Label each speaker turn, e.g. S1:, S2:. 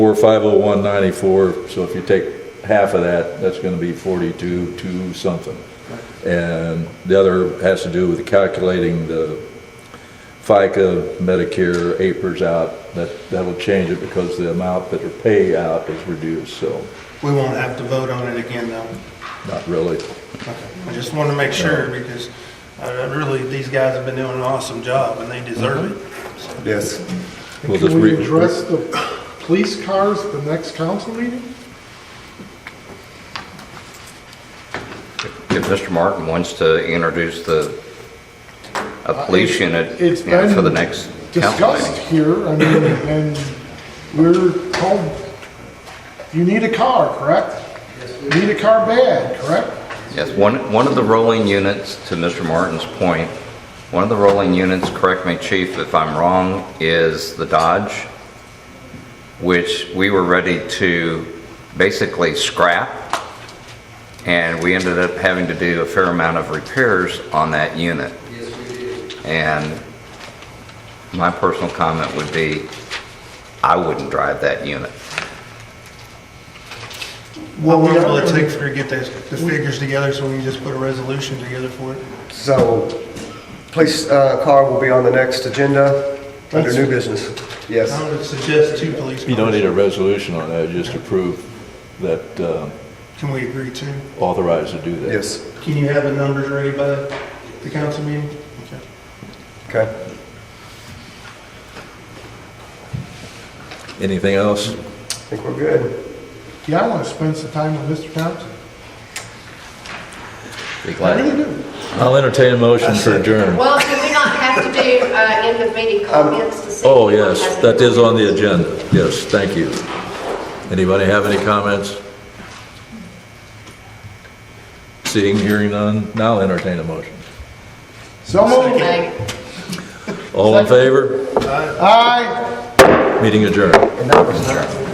S1: Four five oh one ninety-four, so if you take half of that, that's gonna be forty-two, two something. And the other has to do with calculating the FICA, Medicare, APRS out. That, that'll change it because the amount that are pay out is reduced, so
S2: We won't have to vote on it again, though.
S1: not really.
S2: Okay. I just wanted to make sure, because uh, really, these guys have been doing an awesome job, and they deserve it. So,
S3: Yes.
S1: We'll just
S4: Can we
S1: re-
S4: address the police cars at the next council meeting?
S5: If Mr. Martin wants to introduce the, a police unit,
S4: Uh, It's
S5: you know, for the
S4: been
S5: next council
S4: Discussed
S5: meeting.
S4: here, I mean, and we're told, you need a car, correct? You Need a car bad, correct?
S5: Yes, one, one of the rolling units, to Mr. Martin's point, one of the rolling units, correct me, chief, if I'm wrong, is the Dodge, which we were ready to basically scrap, and we ended up having to do a fair amount of repairs on that unit.
S6: Yes, we did.
S5: And my personal comment would be, I wouldn't drive that unit.
S2: What will it take for you to get those- the figures together, so we can just put a resolution together for it?
S3: So, police uh, car will be on the next agenda under new business. Yes.
S2: I would suggest two police
S1: You don't need
S2: cars.
S1: a resolution on that, just approve that, uh,
S2: Can we agree to?
S1: authorized to do that.
S3: Yes.
S2: Can you have the numbers ready by the council meeting? Okay.
S3: Okay.
S1: Anything else?
S3: I think we're good.
S4: Yeah, I want to spend some time with Mr. Thompson.
S5: Be
S4: I
S5: glad.
S4: really do.
S1: I'll entertain a motion for adjourn.
S7: Well, do we not have to do uh, end of meeting comments to see?
S1: Oh,
S7: if anyone
S1: yes,
S7: has
S1: that
S7: any
S1: is on the
S7: comments?
S1: agenda. Yes, thank you. Anybody have any comments? Seeing, hearing none, now entertain a motion.
S4: So moved.
S7: Okay.
S1: All in favor?
S4: Aye.
S1: Meeting adjourned.
S3: And that was.